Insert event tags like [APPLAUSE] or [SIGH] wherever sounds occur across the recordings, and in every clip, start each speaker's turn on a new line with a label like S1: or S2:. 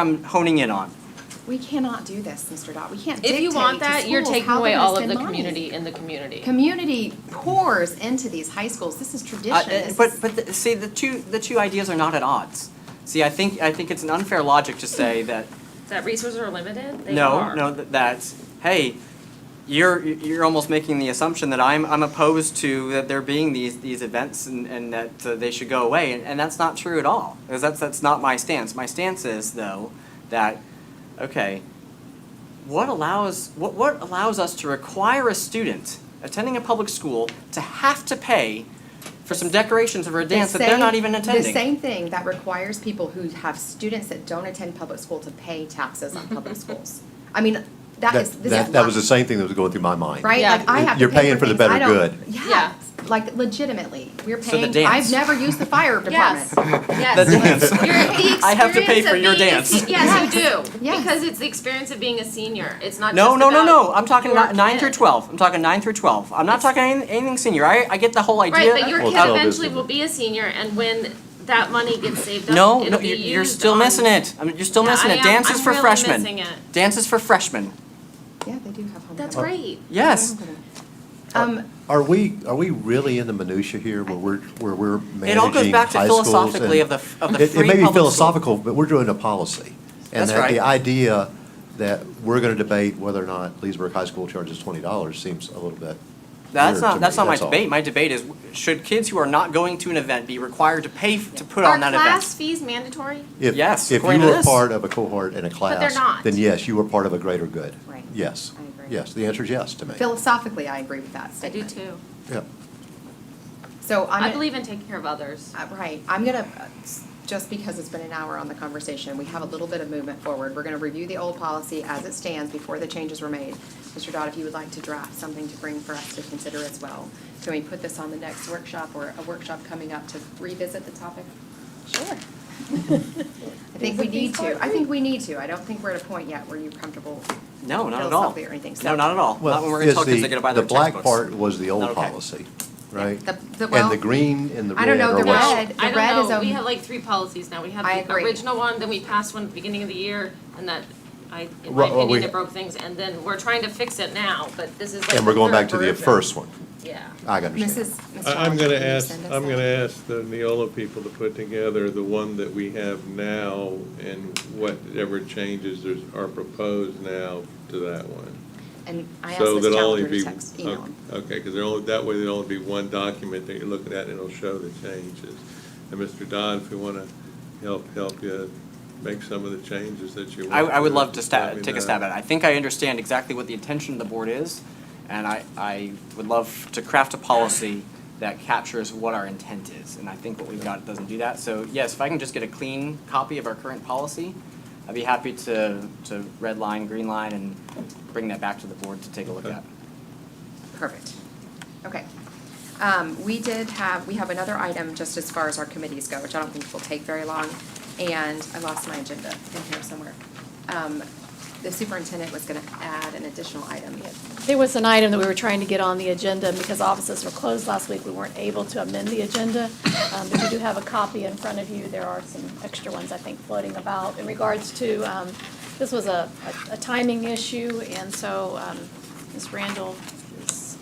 S1: I'm honing in on.
S2: We cannot do this, Mr. Dot. We can't
S3: If you want
S2: dictate to
S3: that, you're
S2: schools
S3: taking
S2: how
S3: away
S2: they're
S3: all
S2: gonna
S3: of the
S2: spend money.
S3: community in the community.
S2: Community pours into these high schools. This is
S1: Uh,
S2: tradition. This
S1: But,
S2: is-
S1: but, the- see, the two, the two ideas are not at odds. See, I think, I think it's an unfair logic to say that,
S3: That resources are limited, they
S1: no,
S3: are.
S1: no, that- that's, hey, you're, you're almost making the assumption that I'm, I'm opposed to that there being these, these events and, and that uh, they should go away, and, and that's not true at all. Because that's, that's not my stance. My stance is, though, that, okay, what allows what, what allows us to require a student attending a public school to have to pay for some decorations for a
S2: the
S1: dance that they're not
S2: same-
S1: even attending?
S2: The same thing that requires people who have students that don't attend public school to pay taxes on
S3: [LAUGHS]
S2: public schools. I mean, that is, this is.
S4: That, that was the
S2: lo-
S4: same thing that was going through my mind.
S2: Right?
S3: Yeah.
S2: Like I have to
S4: You're
S2: pay
S4: paying for the
S2: things I
S4: better
S2: don't-
S4: good.
S2: Yeah, like legitimately. We're
S1: So the
S2: paying,
S1: dance.
S2: I've never used the
S3: [LAUGHS]
S2: fire department.
S3: Yes, yes. [LAUGHS]
S1: The dance.
S3: You're- the
S1: I have to pay
S3: experience
S1: for
S3: of
S1: your
S3: being a
S1: dance.
S3: se- Yes, you do,
S2: Yes.
S3: because it's the experience of being a senior, it's not
S1: No,
S3: just
S1: no, no, no.
S3: about
S1: I'm talking
S3: your
S1: about nine
S3: kid.
S1: through twelve. I'm talking nine through twelve. I'm not talking anything, anything senior. I, I get the whole idea.
S3: Right, but your
S4: Well,
S3: kid
S4: twelve is
S3: eventually
S4: different.
S3: will be a senior, and when that money
S1: [LAUGHS]
S3: gets saved
S1: no,
S3: up,
S1: no,
S3: it'll be
S1: you're,
S3: used
S1: you're still
S3: on-
S1: missing it. I mean, you're still
S3: Yeah,
S1: missing
S3: I
S1: it.
S3: am.
S1: Dance is
S3: I'm
S1: for
S3: really
S1: freshmen.
S3: missing it.
S1: Dance is for freshmen.
S2: Yeah, they do have home.
S3: That's
S2: economics.
S3: great.
S1: Yes.
S2: Um,
S4: Are we, are we really in the minutia here where we're, where we're managing high schools?
S1: It all goes back to
S4: and-
S1: philosophically of the f- of the
S4: It-
S1: free
S4: It may be
S1: public school.
S4: philosophical, but we're doing a policy.
S1: That's right.
S4: And that the idea that we're going to debate whether or not Leesburg High School charges twenty dollars seems a little bit
S1: That's
S4: weird
S1: not
S4: to
S1: that's
S4: me,
S1: not my
S4: all.
S1: debate. My debate is should kids who are not going to an event be required to pay f- to put
S3: Are
S1: on that event?
S3: class fees mandatory?
S4: If-
S1: Yes, according to
S4: If you were
S1: this.
S4: part of a cohort in a class.
S3: they're not.
S4: Then yes, you were part of a greater good.
S2: Right.
S4: Yes.
S2: I agree.
S4: Yes, the answer is yes to me.
S2: Philosophically, I agree with that
S3: I do
S2: statement.
S3: too.
S4: Yep.
S2: So I'm.
S3: I believe in taking care of others.
S2: Uh, Right, I'm gonna, uh, s- just because it's been an hour on the conversation, we have a little bit of movement forward. We're gonna review the old policy as it stands before the changes were made. Mr. Dodd, if you would like to draft something to bring for us to consider as well, can we put this on the next workshop or a workshop coming up to revisit the topic? Sure. I think we need to, I think we need to. I don't think we're at a point yet where you're comfortable.
S1: No, not at all.
S2: philosophically or anything,
S1: No,
S2: so-
S1: not at all. Not when we're
S4: Well,
S1: gonna
S4: is
S1: tell kids they
S4: the,
S1: gotta buy
S4: the
S1: their
S4: black
S1: textbooks.
S4: part was the
S1: Not
S4: old
S1: okay.
S4: policy, right?
S2: The- the-
S4: And
S2: well,
S4: the green and the
S2: I don't
S4: red
S2: know,
S4: are
S2: the
S4: what's.
S2: red-
S3: I
S2: red
S3: don't
S2: is
S3: know,
S2: a-
S3: we have like three policies now, we
S2: I
S3: had the
S2: agree.
S3: original one, then we passed one at the beginning of the year, and that, I, in my
S4: Right, well,
S3: opinion,
S4: we-
S3: it broke things, and then we're trying to fix it now, but this is like
S4: And we're
S3: the
S4: going back
S3: third
S4: to the
S3: version.
S4: first one.
S3: Yeah.
S4: I understand.
S2: Mrs. Mr.
S5: I-
S2: Dodd,
S5: I'm gonna
S2: can you
S5: ask,
S2: send us
S5: I'm
S2: that?
S5: gonna ask the Neola people to put together the one that we have now and whatever changes there's, are proposed now to that one.
S2: And I asked
S5: So
S2: Ms.
S5: there'll only
S2: Challenger to
S5: be
S2: text, email him.
S5: Okay, because there only, that way there'll only be one document that you're looking at and it'll show the changes. And Mr. Dodd, if you wanna help, help you make some of the changes that you want.
S1: I, I would
S5: to,
S1: love to
S5: just let
S1: stab,
S5: me
S1: take a
S5: know.
S1: stab at it. I think I understand exactly what the intention of the board is, and I, I would love to craft a policy that captures what our intent is, and I think what we've got doesn't do that. So yes, if I can just get a clean copy of our current policy, I'd be happy to, to red line, green line, and bring that back to the board to take a look
S5: Okay.
S1: at.
S2: Perfect. Okay. Um, We did have, we have another item just as far as our committees go, which I don't think will take very long. And I lost my agenda in here somewhere. Um, The superintendent was going to add an additional item.
S6: There was an item that we were trying to get on the agenda, and because offices were closed last week, we weren't able to amend the agenda. Um, But you do have a copy in front of you. There are some extra ones, I think, floating about in regards to, um, this was a a- a timing issue, and so um, Ms. Randall is,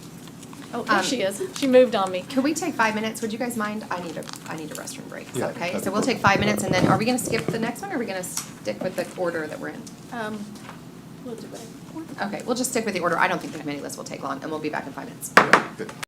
S6: oh, there
S2: Um,
S6: she is. She moved on me.
S2: Can we take five minutes? Would you guys mind? I need a, I need a restroom break. Is that
S4: Yeah,
S2: Okay,
S4: that'd
S2: so
S4: be
S2: we'll take
S4: perfect.
S2: five minutes and then are we going to skip the next one or are we going to stick with the order that we're in?
S6: Um, we'll do it.
S2: Okay, we'll just stick with the order. I don't think the committee list will take long and we'll be back in five minutes.
S4: Good.